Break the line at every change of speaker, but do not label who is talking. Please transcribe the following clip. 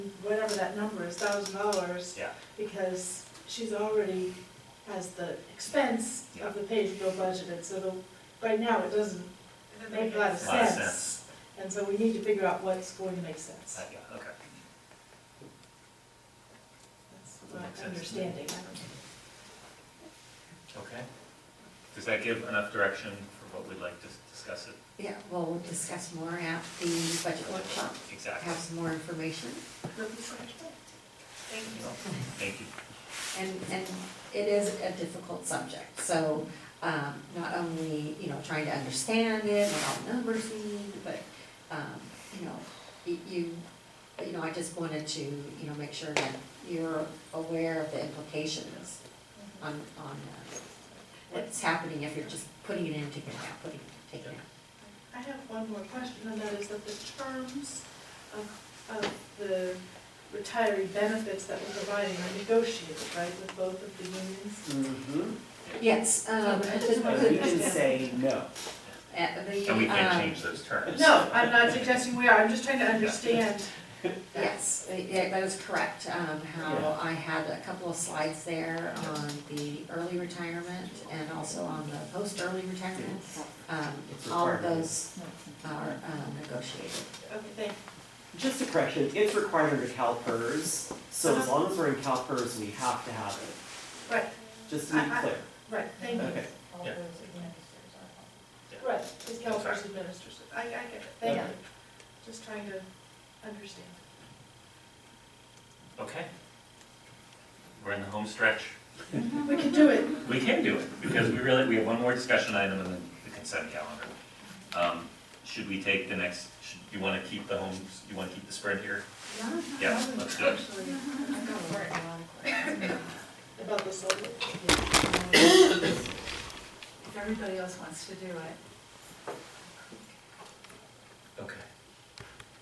whatever that number is, thousand dollars.
Yeah.
Because she's already has the expense of the pay as you go budgeted, so the, right now it doesn't
Doesn't
make a lot of
sense.
A lot of
sense. And so we need to figure out what's going to make sense.
Uh, yeah, okay.
That's
That
my
makes sense.
understanding. I don't know.
Okay. Does that give enough direction for what we'd like to s- discuss it?
Yeah, well, we'll discuss more at the budget workshop,
Exactly.
have some more information.
Thank you.
Thank you.
And, and it is a difficult subject, so, um, not only, you know, trying to understand it, what all numbers mean, but, um, you know, y- you, you know, I just wanted to, you know, make sure that you're aware of the implications on, on uh, what's happening if you're just putting it in, taking it out, putting, it, taking it out.
I have one more question, and that is that the terms of, of the retiree benefits that we're providing are negotiated, right, with both of the unions?
Mm-hmm.
Yes, um,
Okay.
the-
And we can say no.
at the,
And we can't
um,
change those terms.
No, I'm not suggesting we are, I'm just trying to understand.
Yes, yeah, that is correct, um, how
Yeah.
I had a couple of slides there on the early retirement and also on the post-early retirement. Um,
It's
all of
required.
those are um, negotiated.
Okay, thank
Just a correction, it's required under CalPERS, so as long as we're in CalPERS, we have to have it,
you, right,
just to be clear.
right, thank you.
Okay,
Yeah.
Right, it's California administers it, I, I get it, thank you,
Okay.
just trying to understand.
Okay. We're in the home stretch.
We can do it,
We can do it, because we really, we have one more discussion item and then the consent calendar. Um, Should we take the next, should, you want to keep the home, you want to keep the spread here? Yeah, let's do it.
I'm gonna work a lot.
about the solar.
If everybody else wants to do it,